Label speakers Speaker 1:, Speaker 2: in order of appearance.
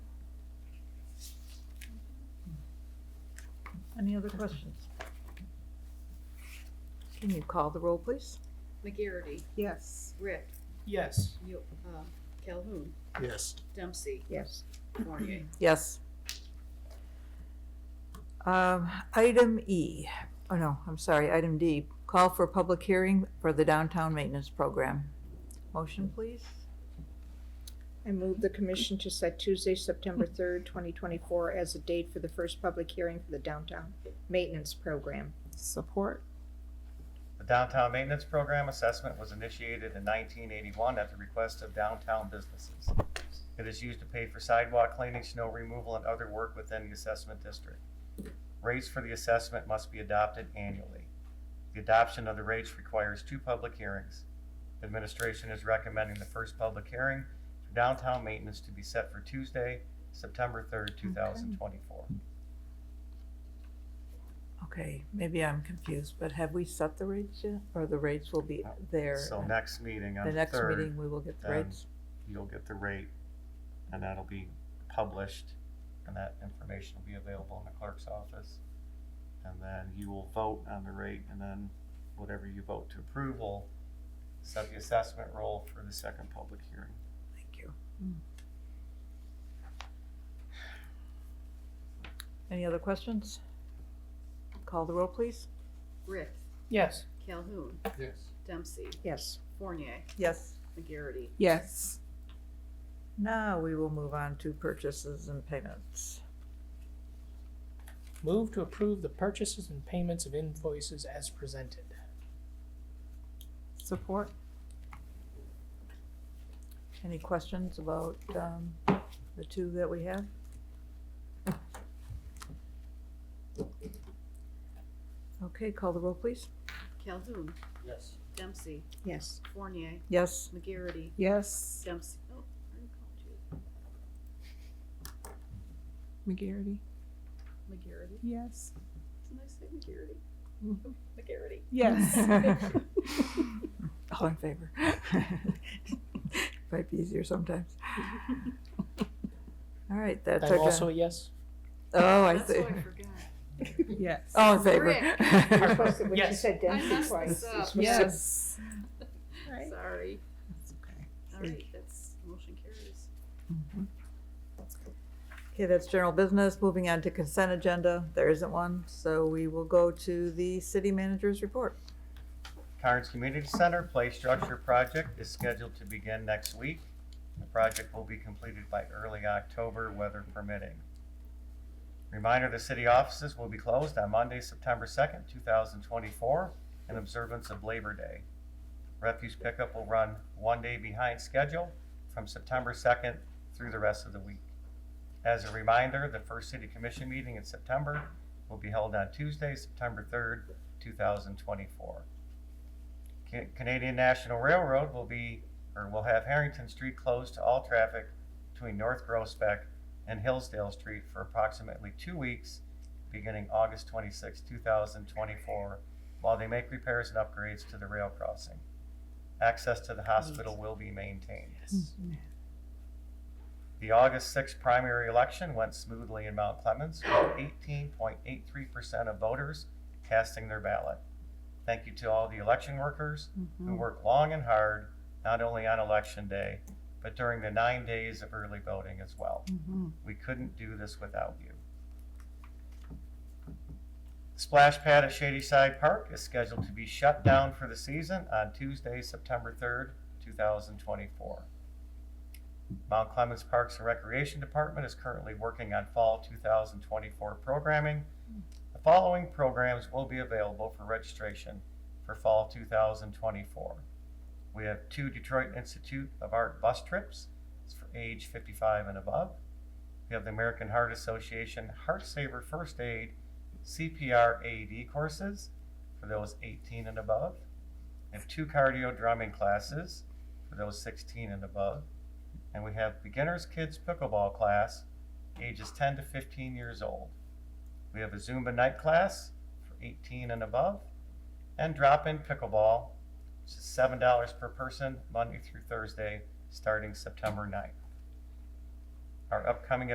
Speaker 1: Any other questions?
Speaker 2: Can you call the roll, please?
Speaker 3: McGarity,
Speaker 1: Yes.
Speaker 3: Rick,
Speaker 4: Yes.
Speaker 3: Yo- uh, Calhoun,
Speaker 4: Yes.
Speaker 3: Dempsey,
Speaker 1: Yes.
Speaker 3: Fournier.
Speaker 2: Yes. Um, Item E, oh no, I'm sorry, item D, call for public hearing for the downtown maintenance program. Motion, please?
Speaker 1: I move the commission to set Tuesday, September third, twenty twenty-four as a date for the first public hearing for the downtown maintenance program.
Speaker 5: Support.
Speaker 6: The downtown maintenance program assessment was initiated in nineteen eighty-one at the request of downtown businesses. It is used to pay for sidewalk cleaning, snow removal, and other work within the assessment district. Rates for the assessment must be adopted annually. The adoption of the rates requires two public hearings. Administration is recommending the first public hearing for downtown maintenance to be set for Tuesday, September third, two thousand twenty-four.
Speaker 2: Okay, maybe I'm confused, but have we set the rates yet? Or the rates will be there?
Speaker 6: Uh, So
Speaker 2: at
Speaker 6: next meeting on
Speaker 2: The
Speaker 6: the
Speaker 2: next
Speaker 6: third,
Speaker 2: meeting, we will get the
Speaker 6: then-
Speaker 2: rates?
Speaker 6: you'll get the rate, and that'll be published, and that information will be available in the clerk's office. And then you will vote on the rate, and then whatever you vote to approve will set the assessment roll for the second public hearing.
Speaker 2: Thank you. Hmm. Any other questions? Call the roll, please?
Speaker 3: Rick,
Speaker 4: Yes.
Speaker 3: Calhoun,
Speaker 4: Yes.
Speaker 3: Dempsey,
Speaker 1: Yes.
Speaker 3: Fournier,
Speaker 2: Yes.
Speaker 3: McGarity.
Speaker 5: Yes.
Speaker 2: Now we will move on to purchases and payments.
Speaker 4: Move to approve the purchases and payments of invoices as presented.
Speaker 5: Support.
Speaker 2: Any questions about um, the two that we have? Okay, call the roll, please.
Speaker 3: Calhoun,
Speaker 4: Yes.
Speaker 3: Dempsey,
Speaker 1: Yes.
Speaker 3: Fournier,
Speaker 2: Yes.
Speaker 3: McGarity,
Speaker 5: Yes.
Speaker 3: Dempsey. Oh, I already called you.
Speaker 5: McGarity.
Speaker 3: McGarity.
Speaker 5: Yes.
Speaker 3: Didn't I say McGarity?
Speaker 5: Mhm.
Speaker 3: McGarity.
Speaker 5: Yes.
Speaker 2: All in favor? Might be easier sometimes. All right, that
Speaker 4: I'm
Speaker 2: took
Speaker 4: also
Speaker 2: a,
Speaker 4: a yes.
Speaker 2: oh, I
Speaker 3: That's
Speaker 2: see.
Speaker 3: what I forgot.
Speaker 5: yes.
Speaker 2: All in
Speaker 3: Rick.
Speaker 1: You're
Speaker 2: favor?
Speaker 1: supposed to, when you
Speaker 4: Yes.
Speaker 1: said
Speaker 3: I
Speaker 1: Dempsey
Speaker 3: messed
Speaker 1: twice.
Speaker 3: this up.
Speaker 1: it's-
Speaker 5: Yes.
Speaker 1: Right.
Speaker 3: Sorry.
Speaker 5: That's okay.
Speaker 3: All right, that's, motion carries.
Speaker 2: Mhm. Okay, that's general business. Moving on to consent agenda. There isn't one, so we will go to the city manager's report.
Speaker 6: Carnes Community Center Play Structure Project is scheduled to begin next week. The project will be completed by early October, weather permitting. Reminder, the city offices will be closed on Monday, September second, two thousand twenty-four, in observance of Labor Day. Refuse pickup will run one day behind schedule from September second through the rest of the week. As a reminder, the first city commission meeting in September will be held on Tuesday, September third, two thousand twenty-four. Ca- Canadian National Railroad will be, or will have Harrington Street closed to all traffic between North Groesbeck and Hillsdale Street for approximately two weeks, beginning August 26, 2024, while they make repairs and upgrades to the rail crossing. Access to the hospital will be maintained.
Speaker 4: Yes.
Speaker 6: The August 6 primary election went smoothly in Mount Clemens, with 18.83% of voters casting their ballot. Thank you to all the election workers who work long and hard, not only on election day, but during the nine days of early voting as well. We couldn't do this without you. Splash Pad at Shady Side Park is scheduled to be shut down for the season on Tuesday, September 3rd, 2024. Mount Clemens Parks and Recreation Department is currently working on fall 2024 programming. The following programs will be available for registration for fall 2024. We have two Detroit Institute of Art bus trips It's for age 55 and above. We have the American Heart Association Heart Saver First Aid CPR AED courses for those 18 and above. We have two cardio drumming classes for those 16 and above. And we have Beginners Kids Pickleball class ages 10 to 15 years old. We have a Zumba night class for 18 and above, and drop-in pickleball, which is seven dollars per person, Monday through Thursday, starting September 9th. Our upcoming